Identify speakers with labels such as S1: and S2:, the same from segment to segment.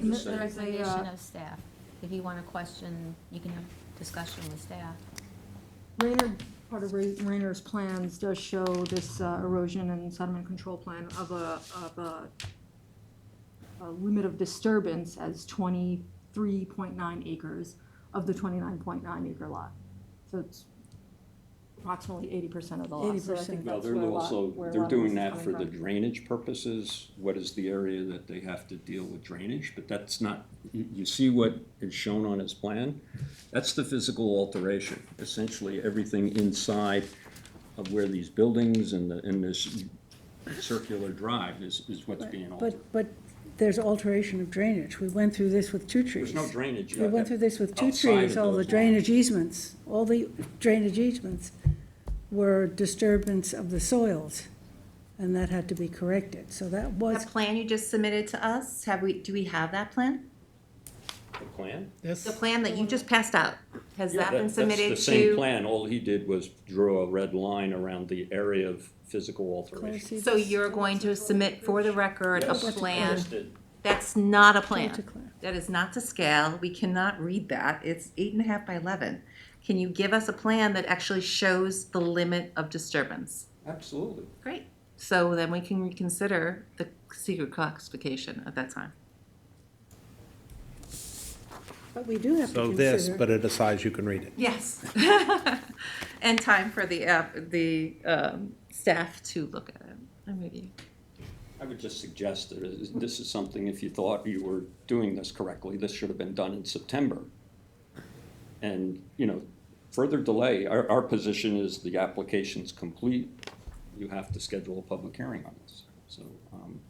S1: And
S2: Just saying.
S1: there's a,
S3: Recommendation
S1: uh,
S3: of staff. If you want to question, you can have discussion with staff.
S1: Rayner, part of Ray- Rayner's plans does show this uh, erosion and sediment control plan of a, of a, a limit of disturbance as twenty-three point nine acres of the twenty-nine point nine acre lot. So it's approximately eighty percent of the lot. So I
S4: 80%.
S1: think
S2: Now,
S1: that's
S2: they're
S1: where a lot-
S2: also,
S1: where a
S2: they're
S1: lot of this
S2: doing
S1: is
S2: that
S1: coming
S2: for the
S1: from.
S2: drainage purposes, what is the area that they have to deal with drainage, but that's not, you, you see what is shown on his plan? That's the physical alteration, essentially everything inside of where these buildings and the, and this circular drive is, is what's being altered.
S4: But, but there's alteration of drainage. We went through this with two trees.
S2: There's no drainage.
S4: We went through this with two
S2: outside of
S4: trees, all
S2: those
S4: the
S2: lines.
S4: drainage easements, all the drainage easements were disturbance of the soils, and that had to be corrected. So that was,
S5: That plan you just submitted to us, have we, do we have that plan?
S2: The plan?
S5: The plan that you just passed out, has that been submitted
S2: That's the same
S5: to?
S2: plan, all he did was draw a red line around the area of physical alteration.
S4: see
S5: So you're going to submit for the record a
S2: Yes,
S5: plan?
S2: listed.
S5: That's not a
S4: Not to
S5: plan.
S4: clear.
S5: That is not to scale. We cannot read that. It's eight and a half by eleven. Can you give us a plan that actually shows the limit of disturbance?
S2: Absolutely.
S5: Great. So then we can reconsider the secret classification at that time.
S4: but we do have to
S6: So this,
S4: consider,
S6: but at a size you can read it.
S5: Yes. And time for the, app- the um, staff to look at it and review.
S2: I would just suggest that is- this is something, if you thought you were doing this correctly, this should have been done in September. And, you know, further delay, our, our position is the application's complete. You have to schedule a public hearing on this. So, um,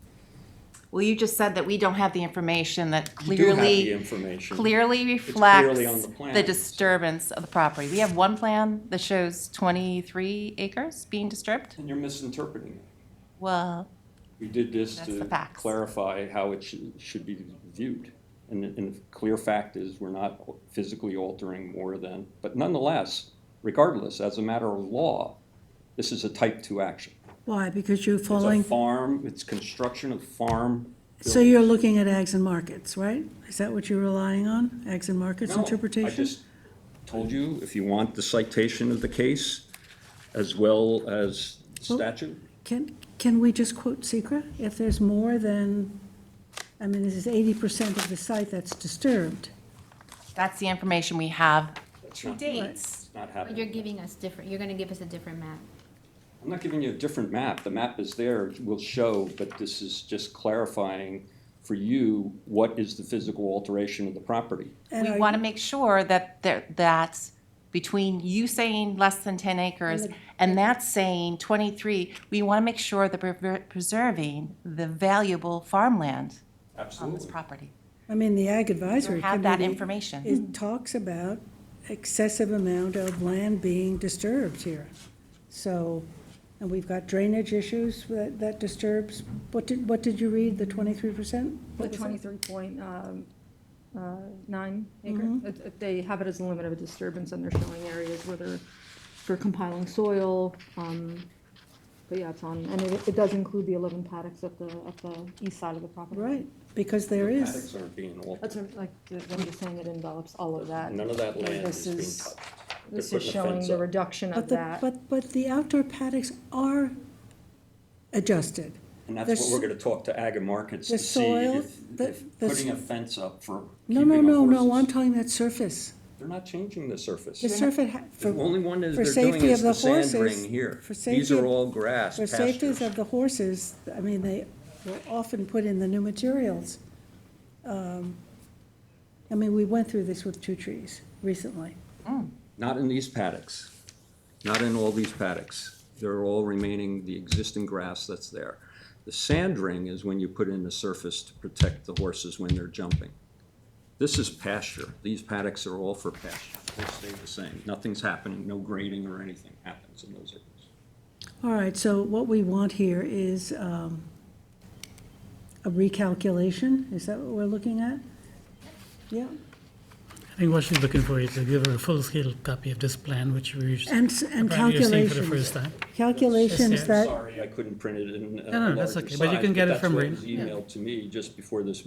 S5: Well, you just said that we don't have the information that
S2: you do have the
S5: clearly,
S2: information.
S5: clearly
S2: clearly on
S5: reflects
S2: the plan.
S5: the disturbance of the property. We have one plan that shows twenty-three acres being disturbed.
S2: And you're misinterpreting it.
S5: Well,
S2: We did this
S5: That's
S2: to
S5: the facts.
S2: clarify how it should, should be viewed. And, the- and the clear fact is, we're not physically altering more than, but nonetheless, regardless, as a matter of law, this is a type two action.
S4: why? Because you're
S2: It's a
S4: following,
S2: farm, it's construction of farm.
S4: so you're looking at ags and markets, right? Is that what you're relying on? Ags and markets
S2: No,
S4: interpretation?
S2: I just told you, if you want the citation of the case, as well as statute,
S4: Can, can we just quote Secra? If there's more than, I mean, this is eighty percent of the site that's disturbed.
S5: that's the information we have to
S2: not-
S5: date.
S2: not
S3: But you're
S2: happening.
S3: giving us different, you're going to give us a different map.
S2: I'm not giving you a different map, the map is there, it will show, but this is just clarifying for you, what is the physical alteration of the property?
S4: And
S5: We
S4: are
S5: want to make sure that there, that's between you saying less than ten acres and that saying twenty-three, we want to make sure that we're ver- preserving the valuable farmland on this
S2: Absolutely.
S5: property.
S4: I mean, the ag advisory
S5: Have that
S4: committee,
S5: information.
S4: it talks about excessive amount of land being disturbed here. So, and we've got drainage issues that, that disturbs, what did, what did you read, the twenty-three percent?
S1: The twenty-three point, um, uh, nine acre, It- it- they have it as a limit of disturbance, and they're showing areas where they're, for compiling soil, um, but yeah, it's on, and it, it does include the eleven paddocks at the, at the east side of the property.
S4: Right, because there is,
S2: Paddocks aren't being altered.
S1: That's, what I'm- like, I'm just saying it envelops all of that.
S2: None of that land is
S1: This
S2: being
S1: is-
S2: touched. They're
S1: This is
S2: putting a
S1: showing
S2: fence
S1: the
S2: up.
S1: reduction of
S4: but the,
S1: that.
S4: but, but the outdoor paddocks are adjusted.
S2: And that's
S4: There's-
S2: what we're gonna talk to ag and markets
S4: the
S2: to see
S4: soil,
S2: if,
S4: the-
S2: if
S4: the
S2: putting
S4: s-
S2: a fence up for
S4: No, no,
S2: keeping of
S4: no, no, I'm
S2: horses.
S4: talking that surface.
S2: They're not changing the surface.
S4: The surface, ha-
S2: The only
S4: for,
S2: one is
S4: for
S2: they're doing
S4: safety
S2: is
S4: of
S2: the
S4: the
S2: sand
S4: horses-
S2: ring here.
S4: for
S2: These
S4: safety
S2: are
S4: of-
S2: all grass
S4: for safeties
S2: pastures.
S4: of the horses, I mean, they were often put in the new materials. Um, I mean, we went through this with two trees recently.
S2: Not in these paddocks, not in all these paddocks. They're all remaining the existing grass that's there. The sand ring is when you put in the surface to protect the horses when they're jumping. This is pasture. These paddocks are all for pasture. They stay the same. Nothing's happening, no grading or anything happens in those areas.
S4: All right, so what we want here is um, a recalculation, is that what we're looking at? Yeah,
S7: I think what she's looking for is to give her a full-scale copy of this plan, which we s-
S4: and, s- and
S7: apparently are seeing for the
S4: calculations.
S7: first time.
S4: Calculations
S7: Yes,
S4: that.
S2: Sorry, I couldn't print it in a
S7: No, no, that's
S2: larger
S7: okay, but you
S2: size,
S7: can get it
S2: that's
S7: from
S2: what
S7: Rena.
S2: was Emailed to me just before this